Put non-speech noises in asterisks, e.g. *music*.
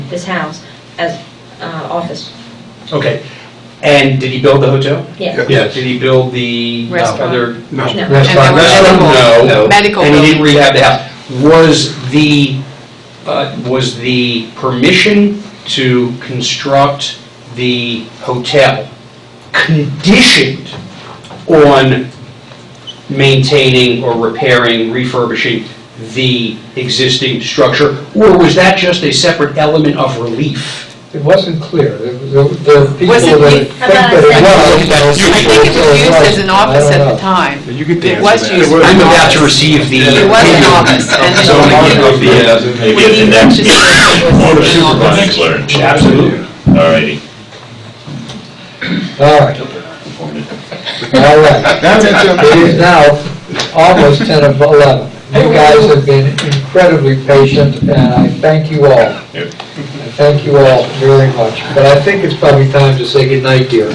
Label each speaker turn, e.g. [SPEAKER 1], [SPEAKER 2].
[SPEAKER 1] his house as uh, office.
[SPEAKER 2] Okay. And did he build the hotel?
[SPEAKER 1] Yeah.
[SPEAKER 2] Yeah, did he build the uh,
[SPEAKER 3] Restaurant.
[SPEAKER 2] other?
[SPEAKER 1] No.
[SPEAKER 4] No.
[SPEAKER 2] Restaurant,
[SPEAKER 3] And there were
[SPEAKER 2] restaurant, no.
[SPEAKER 3] medical- medical
[SPEAKER 2] And he didn't
[SPEAKER 3] buildings.
[SPEAKER 2] rehab the house. Was the, uh, was the permission to construct the hotel conditioned on maintaining or repairing, refurbishing the existing structure? Or was that just a separate element of relief?
[SPEAKER 5] It wasn't clear. The the people
[SPEAKER 3] Wasn't
[SPEAKER 5] that
[SPEAKER 3] it-
[SPEAKER 5] think that it was.
[SPEAKER 2] You-
[SPEAKER 3] I think it was used as an office at the time.
[SPEAKER 4] You could
[SPEAKER 3] It was
[SPEAKER 4] answer that.
[SPEAKER 3] used.
[SPEAKER 2] I'm about to receive the.
[SPEAKER 3] It was an
[SPEAKER 2] *laughs*
[SPEAKER 3] office, and then-
[SPEAKER 2] Zoning of the, uh,
[SPEAKER 3] We
[SPEAKER 6] Maybe at the
[SPEAKER 3] need
[SPEAKER 6] next
[SPEAKER 3] to say it was
[SPEAKER 6] Board of
[SPEAKER 3] an office.
[SPEAKER 6] Supervisors learn.
[SPEAKER 2] uh, Absolutely.
[SPEAKER 6] Alrighty.
[SPEAKER 5] All right, all right.
[SPEAKER 4] That's it,
[SPEAKER 5] It is now almost 10 of 11. You guys have been incredibly patient, and I thank you all. I
[SPEAKER 6] Yep.
[SPEAKER 5] Thank you all very much. But I think it's probably time to say goodnight, dear.